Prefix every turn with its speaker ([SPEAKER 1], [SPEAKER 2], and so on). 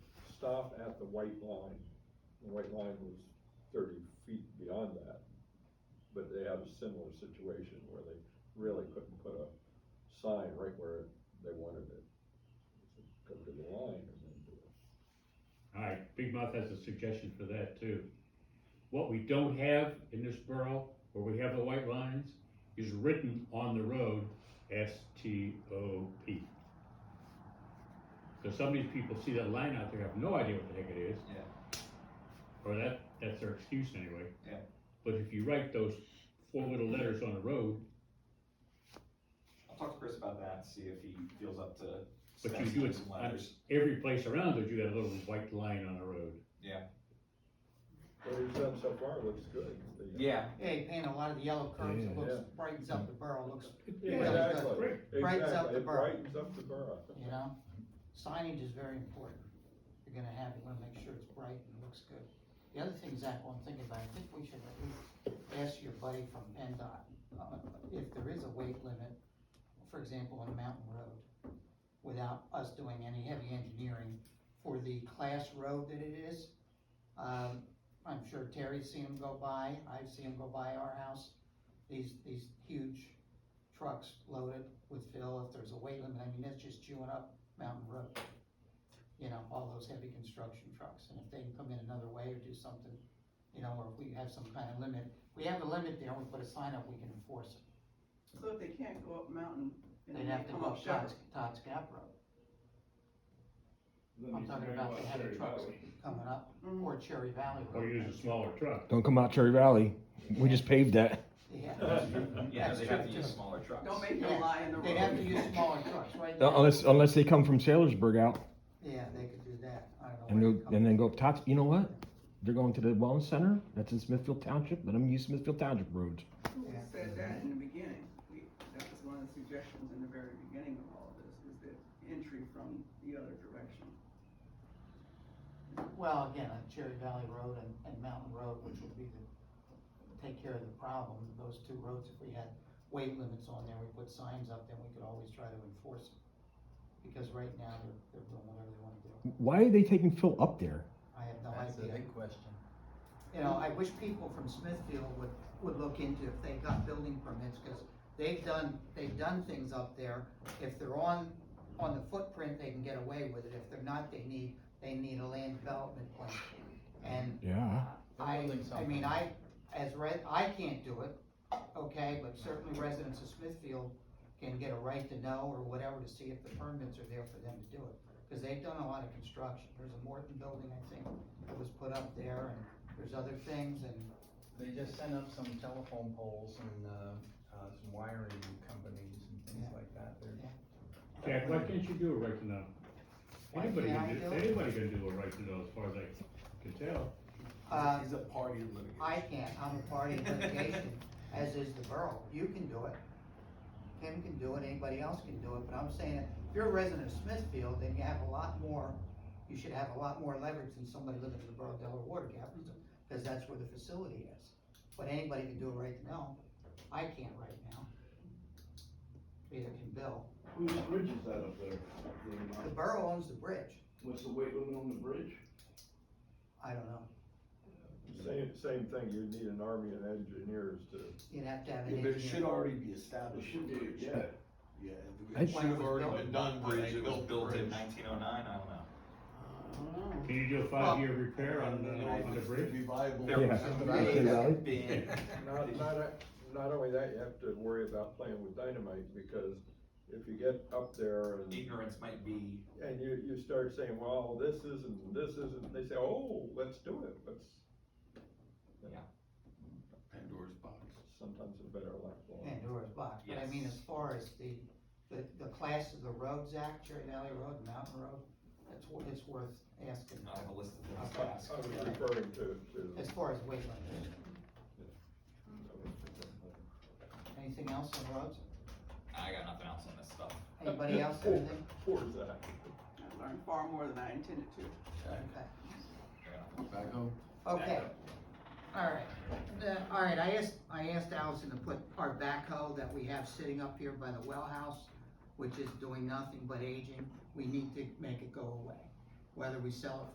[SPEAKER 1] stop at the white line, the white line was thirty feet beyond that. But they had a similar situation where they really couldn't put a sign right where they wanted it. Go to the line and then do it.
[SPEAKER 2] Alright, Big Mouth has a suggestion for that too. What we don't have in this borough, where we have the white lines, is written on the road, S T O P. So some of these people see that line out there, have no idea what the heck it is.
[SPEAKER 3] Yeah.
[SPEAKER 2] Or that, that's their excuse anyway.
[SPEAKER 3] Yeah.
[SPEAKER 2] But if you write those four little letters on the road,
[SPEAKER 3] I'll talk to Chris about that, see if he feels up to.
[SPEAKER 2] But you
[SPEAKER 3] specs
[SPEAKER 2] do
[SPEAKER 3] and
[SPEAKER 2] it
[SPEAKER 3] some
[SPEAKER 2] on-
[SPEAKER 3] letters.
[SPEAKER 2] every place around it, you got a little white line on the road.
[SPEAKER 1] What he's done so far looks good. The-
[SPEAKER 3] Yeah,
[SPEAKER 4] Yeah, you paint a lot of the yellow curves, it
[SPEAKER 5] Yeah.
[SPEAKER 4] looks,
[SPEAKER 1] Yeah.
[SPEAKER 4] brightens up the borough, looks,
[SPEAKER 1] Yeah,
[SPEAKER 4] Yeah, that's
[SPEAKER 1] Exactly.
[SPEAKER 2] great.
[SPEAKER 4] Brightens up
[SPEAKER 1] Exactly.
[SPEAKER 4] the
[SPEAKER 1] It
[SPEAKER 4] borough.
[SPEAKER 1] Brightens up the borough.
[SPEAKER 4] you know? Signage is very important. If You're gonna have, you wanna make sure it's bright and looks good. The other thing, Zach, while I'm thinking about, it, I think we should at least ask your buddy from PennDOT, uh, if there is a weight limit, for example, on a mountain road, without us doing any heavy engineering for the class road that it is. Um, I'm sure Terry's seen them go by, I've seen them go by our house, these, these huge trucks loaded with fill, if there's a weight limit, I mean, that's just chewing up Mountain Road. You know, all those heavy construction trucks, and if they can come in another way or do something, you know, or if we have some kind of limit, we have a limit there, we put a sign up, we can enforce it.
[SPEAKER 6] So if they can't go up mountain, and
[SPEAKER 4] They'd have to
[SPEAKER 6] come
[SPEAKER 4] go
[SPEAKER 6] up
[SPEAKER 4] up
[SPEAKER 6] Sugar.
[SPEAKER 4] Todd's, Todd's Gap Road, I'm talking about the heavy trucks coming up,
[SPEAKER 6] Mhm.
[SPEAKER 4] or Cherry Valley Road.
[SPEAKER 2] Or use a smaller truck.
[SPEAKER 5] Don't come out Cherry Valley. We just paved that.
[SPEAKER 4] Yeah,
[SPEAKER 3] yeah,
[SPEAKER 4] That's
[SPEAKER 3] they
[SPEAKER 4] true,
[SPEAKER 3] have to use
[SPEAKER 4] too.
[SPEAKER 3] smaller trucks.
[SPEAKER 6] Don't make
[SPEAKER 4] Yeah.
[SPEAKER 6] them lie in the road.
[SPEAKER 4] they'd have to use smaller trucks, right?
[SPEAKER 5] Unless, uh, unless they come from Sailorsburg out
[SPEAKER 4] Yeah, they could do that, I don't
[SPEAKER 5] and,
[SPEAKER 4] know. where
[SPEAKER 5] they'll-
[SPEAKER 4] they come
[SPEAKER 5] and then go up Tots. You know what? They're going to the wellness center. That's in Smithfield Township. Let them use Smithfield Township roads.
[SPEAKER 6] Who said that in the beginning? We, that was one of the suggestions in the very beginning of all of this, is the entry from the other direction.
[SPEAKER 4] Well, again, on Cherry Valley Road and, and Mountain Road, which would be the, take care of the problem, those two roads, if we had weight limits on there, we put signs up, then we could always try to enforce it. Because right now, they're, they're doing whatever they wanna do,
[SPEAKER 5] Why are they taking Phil up there?
[SPEAKER 4] I have no
[SPEAKER 7] That's the
[SPEAKER 4] idea.
[SPEAKER 7] big question.
[SPEAKER 4] You know, I wish people from Smithfield would, would look into if they got building permits, cause they've done, they've done things up there. If they're on, on the footprint, they can get away with it, if they're not, they need, they need a land development plan. And
[SPEAKER 5] Yeah.
[SPEAKER 4] I,
[SPEAKER 7] Building
[SPEAKER 4] I
[SPEAKER 7] something.
[SPEAKER 4] mean, I, as re I can't do it, okay, but certainly residents of Smithfield can get a right to know or whatever to see if the permits are there for them to do it. Cause they've done a lot of construction, there's a Morton building, I think, that was put up there, and there's other things, and,
[SPEAKER 7] They just sent up some telephone poles and, uh, uh, some wiring companies and things
[SPEAKER 4] Yeah.
[SPEAKER 7] like that. They're
[SPEAKER 2] Jack, why can't you do a right to know?
[SPEAKER 4] Why
[SPEAKER 2] Anybody
[SPEAKER 4] can't
[SPEAKER 2] can
[SPEAKER 4] I
[SPEAKER 2] do,
[SPEAKER 4] do it?
[SPEAKER 2] anybody can do a right to know as far as I can tell.
[SPEAKER 4] uh,
[SPEAKER 3] He's a party to litigation.
[SPEAKER 4] I can't, I'm a party in litigation, as is the borough, you can do it. Kim can do it, anybody else can do it, but I'm saying, if you're a resident of Smithfield, then you have a lot more, you should have a lot more leverage than somebody living in the borough of Delaware Water Gap, because that's where the facility is. But anybody can do it right now, I can't right now. Neither can Bill,
[SPEAKER 8] Whose bridge is that up there?
[SPEAKER 4] the borough owns the bridge,
[SPEAKER 8] What's the weight limit on the bridge?
[SPEAKER 4] I don't know,
[SPEAKER 1] Same, same thing, you'd need an army of engineers to,
[SPEAKER 4] you'd have to have an
[SPEAKER 9] Yeah,
[SPEAKER 4] engineer.
[SPEAKER 9] There should already be
[SPEAKER 8] It
[SPEAKER 9] established.
[SPEAKER 8] should
[SPEAKER 9] bridge.
[SPEAKER 8] be, yeah.
[SPEAKER 9] Yeah.
[SPEAKER 5] I-
[SPEAKER 9] It should have already been done.
[SPEAKER 3] I think it was
[SPEAKER 9] built
[SPEAKER 3] built in
[SPEAKER 9] bridge.
[SPEAKER 3] nineteen oh nine, I don't know.
[SPEAKER 2] Can you do a five-year repair on,
[SPEAKER 9] I don't
[SPEAKER 2] uh,
[SPEAKER 9] know if
[SPEAKER 2] on the
[SPEAKER 9] it's
[SPEAKER 2] bridge?
[SPEAKER 9] Revival.
[SPEAKER 3] There
[SPEAKER 5] Yeah.
[SPEAKER 3] was some
[SPEAKER 5] Right.
[SPEAKER 3] really
[SPEAKER 5] Valley?
[SPEAKER 3] big-
[SPEAKER 1] not, not, not only that, you have to worry about playing with dynamite, because if you get up there and
[SPEAKER 3] Ignorance might be,
[SPEAKER 1] And you, you start saying, well, this isn't, this isn't, they say, oh, let's do it, let's.
[SPEAKER 3] Yeah.
[SPEAKER 9] Pandora's box.
[SPEAKER 1] Sometimes a better life.
[SPEAKER 4] Pandora's box, but I mean,
[SPEAKER 3] Yes.
[SPEAKER 4] as far as the, the, the class of the roads act, Cherry Valley Road, Mountain Road, it's, wor- it's worth asking.
[SPEAKER 3] I have a list of things to ask.
[SPEAKER 1] I was referring to, to.
[SPEAKER 4] As far as weight limit, anything else on roads?
[SPEAKER 3] I got nothing else on this stuff.
[SPEAKER 4] Anybody else, anything?
[SPEAKER 1] uh, Poor Zach.
[SPEAKER 6] I learned far more than I intended to.
[SPEAKER 3] I
[SPEAKER 4] Okay.
[SPEAKER 3] got nothing.
[SPEAKER 9] Back home.
[SPEAKER 4] Okay, all right, Uh, all right, I asked, I asked Allison to put our backhoe that we have sitting up here by the well house, which is doing nothing but aging, we need to make it go away. Whether we sell it for